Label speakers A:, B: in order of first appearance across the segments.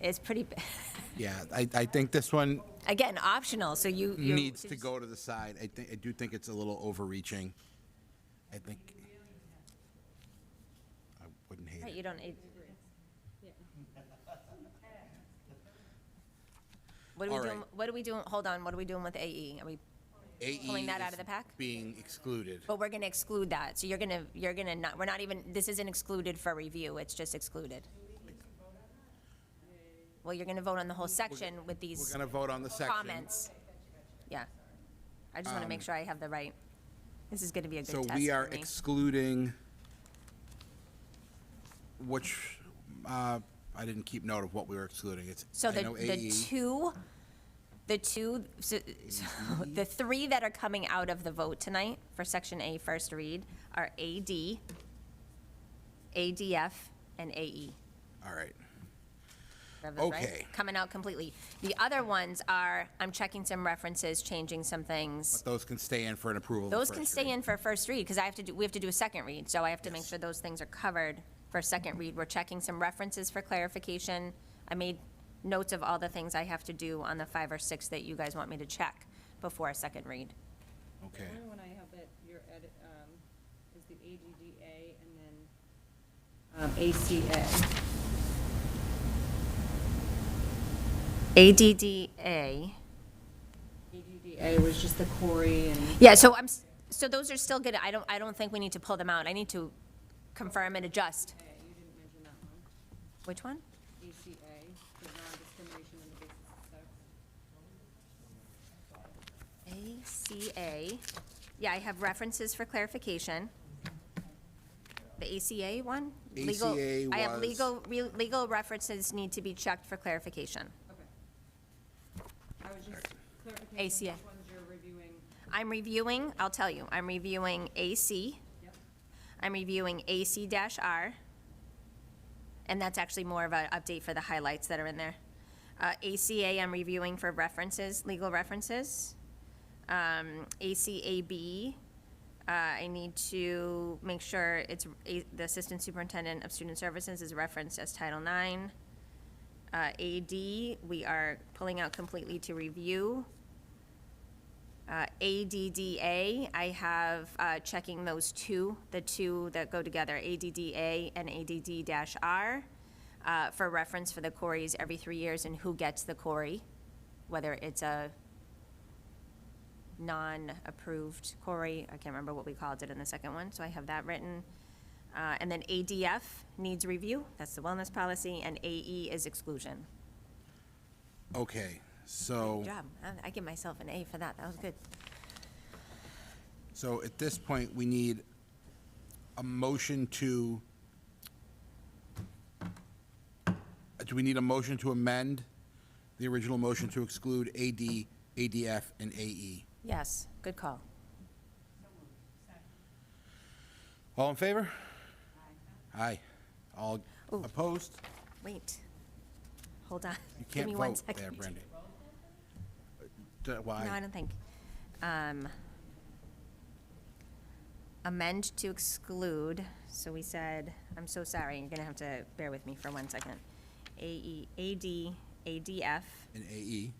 A: is pretty, b-
B: Yeah, I, I think this one
A: again, optional, so you. you
B: needs to
A: just-
B: go to the side. I think, I do think it's a little overreaching. I think. I wouldn't hate
A: Right,
B: it.
A: You don't, it- What are
B: All
A: we doing,
B: right.
A: what are we doing, hold on, what are we doing with E? AE? Are we,
B: AE
A: Pulling that out
B: E is
A: of the pack? Oh.
B: Being excluded.
A: but we're gonna exclude that, so you're gonna, you're gonna not, we're not even, this isn't excluded for review, it's just excluded. Well, you're gonna vote on the whole section with
B: We're
A: these
B: gonna vote on the section. Um,
A: comments. Yeah. I just wanna make sure I have the right, this is gonna be a good
B: So
A: test for
B: we are
A: me.
B: excluding, which, uh, I didn't keep note of what we were excluding. It's,
A: So
B: I
A: the,
B: know E.
A: the
B: AE.
A: two, the two, so, so
B: E.
A: the three that are coming out of the vote tonight for section A first read are AD, ADF, and E. AE.
B: All right.
A: That was right?
B: Okay.
A: Coming out completely. The other ones are, I'm checking some references, changing some things.
B: Those can stay in for an approval. of the
A: Those can
B: first
A: stay
B: read.
A: in for a first read, because I have to do, we have to do a second read, so I have to make sure those things are covered for a second read. We're checking some references for clarification. I made notes of all the things I have to do on the five or six that you guys want me to check before a second read.
B: Okay.
C: The only one I have that your edit, um, is the AGDA and then, um, ACA.
A: ADDA.
C: AGDA was just the Corey and.
A: Yeah, so I'm, s- so those are still good. I don't, I don't think we need to pull them out. I need to confirm and adjust.
C: Okay, you didn't mention that one.
A: Which one?
C: ACA, the non-discrimination on the basis of sex.
A: ACA, yeah, I have references for clarification. The ACA one? Legal-
B: ACA
A: I have
B: was-
A: legal, re- legal references need to be checked for clarification.
C: Okay. I was just
A: ACA.
C: clarification, which ones you're reviewing.
A: I'm reviewing, I'll tell you, I'm reviewing AC,
C: Yep.
A: I'm reviewing AC dash R, and that's actually more of an update for the highlights that are in there. Uh, ACA, I'm reviewing for references, legal references. Um, ACAB, uh, I need to make sure it's, a- the Assistant Superintendent of Student Services is referenced as Title IX. Uh, AD, we are pulling out completely to review. Uh, ADDA, I have uh, checking those two, the two that go together, ADDA and ADD-R, uh, for reference for the Corys every three years and who gets the Cory, whether it's a non-approved Cory, I can't remember what we called it in the second one, so I have that written. Uh, And then ADF needs review, that's the wellness policy, and AE is exclusion.
B: Okay, so,
A: Good job, I- I give myself an A for that, that was good.
B: so at this point, we need a motion to, uh, do we need a motion to amend the original motion to exclude AD, ADF, and E? AE?
A: Yes, good call.
B: All in favor? Aye. All opposed?
A: Wait. Hold on.
B: You
A: Give
B: can't
A: me one
B: vote
A: second.
B: there, Brendan. D-
A: No, I
B: Why?
A: don't think. Um, Amend to exclude, so we said, I'm so sorry, you're gonna have to bear with me for one second. E, AE, AD, ADF,
B: And AE,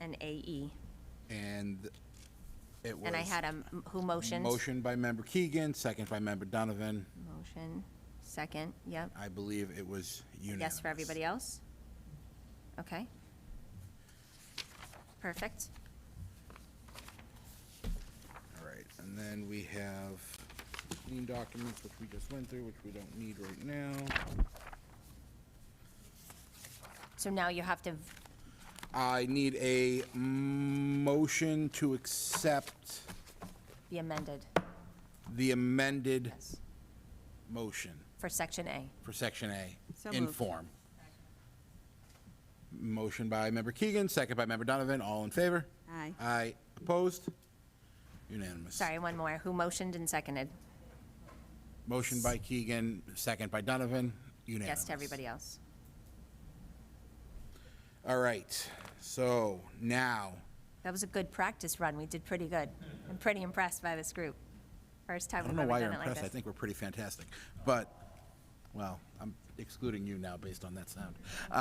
A: and AE.
B: and it was.
A: And I had a, m- who motioned?
B: Motion by member Keegan, second by member Donovan.
A: Motion, second, yep.
B: I believe it was unanimous.
A: Yes for everybody else? Okay. Perfect.
B: All right, and then we have clean documents, which we just went through, which we don't need right now.
A: So now you have to, v-
B: I need a motion to accept
A: be amended,
B: the amended
A: yes,
B: motion
A: for section A.
B: for section A
C: So
B: in
C: moved.
B: form. Motion by member Keegan, second by member Donovan, all in favor?
C: Aye.
B: Aye, opposed? Unanimous.
A: Sorry, one more. Who motioned and seconded?
B: Motion by Keegan, second by Donovan, unanimous.
A: Yes to everybody else.
B: All right, so now,
A: That was a good practice run. We did pretty good. I'm pretty impressed by this group. First time
B: I don't
A: we've
B: know
A: ever
B: why
A: done
B: you're
A: it like
B: impressed, I
A: this.
B: think we're pretty fantastic, but, well, I'm excluding you now based on that sound.